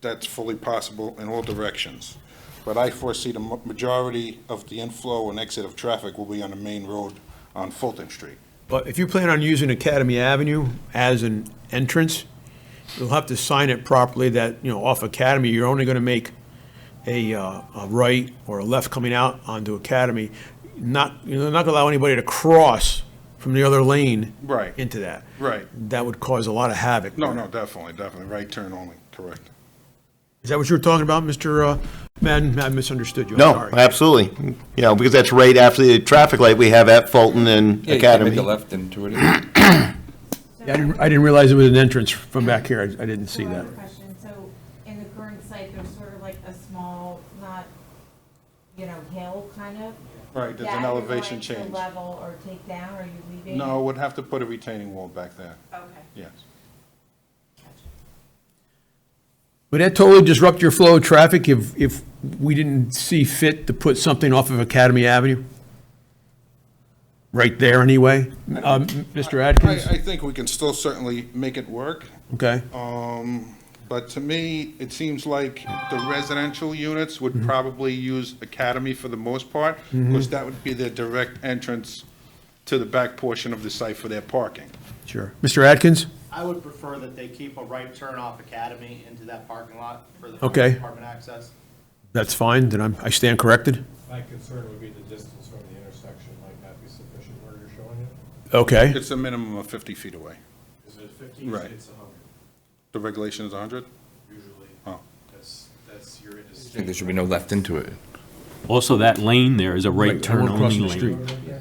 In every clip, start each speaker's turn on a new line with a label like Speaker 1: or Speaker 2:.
Speaker 1: that's fully possible in all directions. But I foresee the ma- majority of the inflow and exit of traffic will be on the main road on Fulton Street.
Speaker 2: But if you plan on using Academy Avenue as an entrance, you'll have to sign it properly that, you know, off Academy, you're only going to make a, uh, a right or a left coming out onto Academy. Not, you're not going to allow anybody to cross from the other lane.
Speaker 1: Right.
Speaker 2: Into that.
Speaker 1: Right.
Speaker 2: That would cause a lot of havoc.
Speaker 1: No, no, definitely, definitely, right turn only, correct.
Speaker 2: Is that what you were talking about, Mr. uh, Madden? I misunderstood you. I'm
Speaker 3: No,
Speaker 2: sorry.
Speaker 3: absolutely. You know, because that's right after the traffic light we have at Fulton and
Speaker 4: Yeah, you can make
Speaker 3: Academy.
Speaker 4: a left into it.
Speaker 2: I didn't, I didn't realize it was an entrance from back here. I I didn't see
Speaker 5: So I
Speaker 2: that.
Speaker 5: have a question, so in the current site, there's sort of like a small, not, you know, hill kind of?
Speaker 1: Right, there's
Speaker 5: That
Speaker 1: an
Speaker 5: you're
Speaker 1: elevation
Speaker 5: going to
Speaker 1: change.
Speaker 5: Level or take down, or are you leaving?
Speaker 1: No, would have to put a retaining wall back there,
Speaker 5: Okay.
Speaker 1: yes.
Speaker 2: Would that totally disrupt your flow of traffic if, if we didn't see fit to put something off of Academy Avenue? Right there, anyway? Um, Mr.
Speaker 1: I,
Speaker 2: Atkins?
Speaker 1: I think we can still certainly make it work,
Speaker 2: Okay.
Speaker 1: but to me, it seems like the residential units would probably use Academy for the most part, because that would be their direct entrance to the back portion of the site for their parking.
Speaker 2: Sure. Mr. Atkins?
Speaker 6: I would prefer that they keep a right turn off Academy into that parking lot for the
Speaker 2: Okay.
Speaker 6: apartment access.
Speaker 2: That's fine, then I'm, I stand corrected?
Speaker 7: My concern would be the distance from the intersection might not be sufficient where you're showing it.
Speaker 2: Okay.
Speaker 1: It's a minimum of 50 feet away.
Speaker 7: Is it fifteen,
Speaker 1: Right.
Speaker 7: it's a hundred,
Speaker 1: The regulation is 100?
Speaker 7: usually.
Speaker 1: Oh.
Speaker 7: That's, that's your
Speaker 4: I think
Speaker 7: industry.
Speaker 4: there should be no left into it.
Speaker 8: Also, that lane there is a right turn
Speaker 2: Everyone
Speaker 8: only
Speaker 2: crossing the
Speaker 8: lane
Speaker 2: street.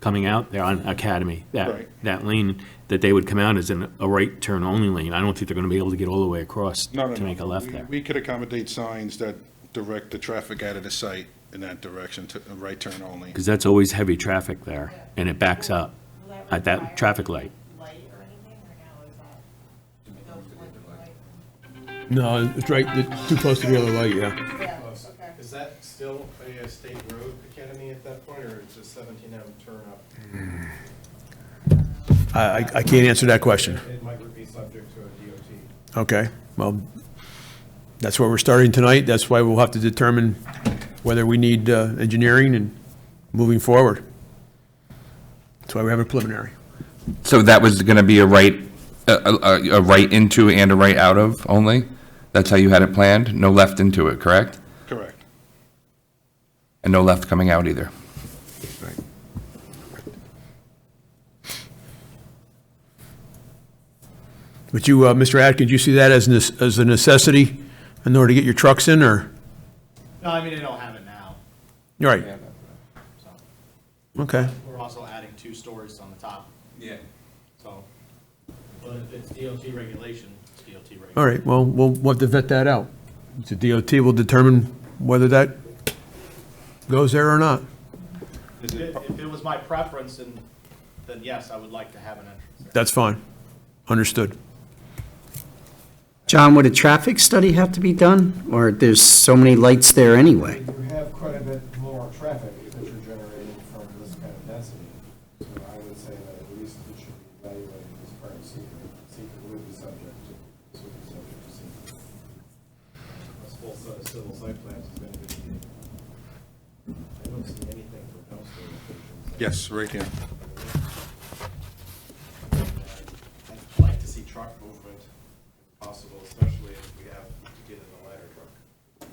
Speaker 8: coming out there on Academy. That,
Speaker 1: Right.
Speaker 8: that lane that they would come out is in a right turn only lane. I don't think they're going to be able to get all the way across
Speaker 1: No, no,
Speaker 8: to make a
Speaker 1: no.
Speaker 8: left
Speaker 1: We-
Speaker 8: there.
Speaker 1: We could accommodate signs that direct the traffic out of the site in that direction to a right turn only.
Speaker 8: Because that's always heavy traffic there and it backs up
Speaker 5: Will that
Speaker 8: at Uh, that
Speaker 5: require
Speaker 8: traffic light.
Speaker 5: Light or anything, or no, is that? those blinking lights?
Speaker 2: No, it's right, it's too close to the other light, yeah.
Speaker 5: Yeah,
Speaker 7: Close.
Speaker 5: okay.
Speaker 7: Is that still a uh, state road academy at that point, or is it seventeen M turn up?
Speaker 2: I, I I can't answer that question.
Speaker 7: It might be subject to a DOT.
Speaker 2: Okay, well, that's where we're starting tonight. That's why we'll have to determine whether we need uh, engineering and moving forward. That's why we have a preliminary.
Speaker 4: So that was going to be a right, a, a, a right into and a right out of only? That's how you had it planned? No left into it, correct?
Speaker 1: Correct.
Speaker 4: And no left coming out either?
Speaker 2: But you, uh, Mr. Atkins, you see that as, nes- as a necessity in order to get your trucks in, or?
Speaker 6: No, I mean, they don't have it now,
Speaker 2: You're right,
Speaker 6: so.
Speaker 2: okay.
Speaker 6: We're also adding two stories on the top,
Speaker 4: Yeah.
Speaker 6: so. But if it's DOT regulation, it's DOT regulation.
Speaker 2: All right, well, we'll we'll have to vet that out. The DOT will determine whether that goes there or not.
Speaker 6: If it if it was my preference, then, then yes, I would like to have an entrance there.
Speaker 2: That's fine, understood.
Speaker 9: John, would a traffic study have to be done? Or there's so many lights there anyway?
Speaker 7: You have quite a bit more traffic that you're generating from this kind of density. So I would say that at least it should be evaluated as part of secret. Secret would be subject to, this would be subject to secret. This whole set of civil site plans is going to be, I don't see anything for dumpster locations.
Speaker 1: Yes, right here.
Speaker 7: I'd like to see truck movement if possible, especially if we have to get in the ladder truck.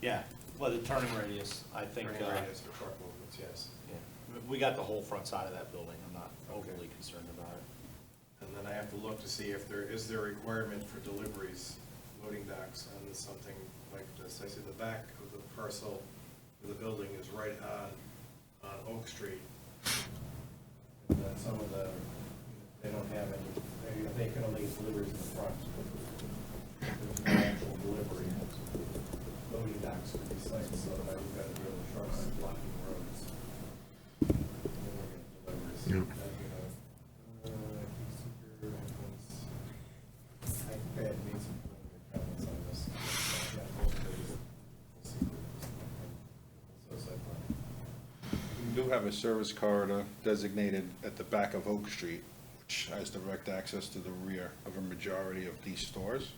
Speaker 6: Yeah, well, the turning radius, I think,
Speaker 7: Turning
Speaker 6: uh,
Speaker 7: radius for truck movements, yes.
Speaker 6: we got the whole front side of that building. I'm not overly concerned about it.
Speaker 7: And then I have to look to see if there, is there a requirement for deliveries, loading docks on something like this. I see the back of the parcel of the building is right on, on Oak Street. And then some of the, they don't have any, they, they can only get deliveries in the front. There's no actual delivery, loading docks for these sites, so now you've got to deal with trucks blocking roads. And then we're gonna deliver, so that'd be the- uh, heat seeker, headphones. I think I had made some comments on this. Yeah, both of these. Heat seekers. So it's like, uh,
Speaker 1: We do have a service corridor designated at the back of Oak Street, which has direct access to the rear of a majority of these stores.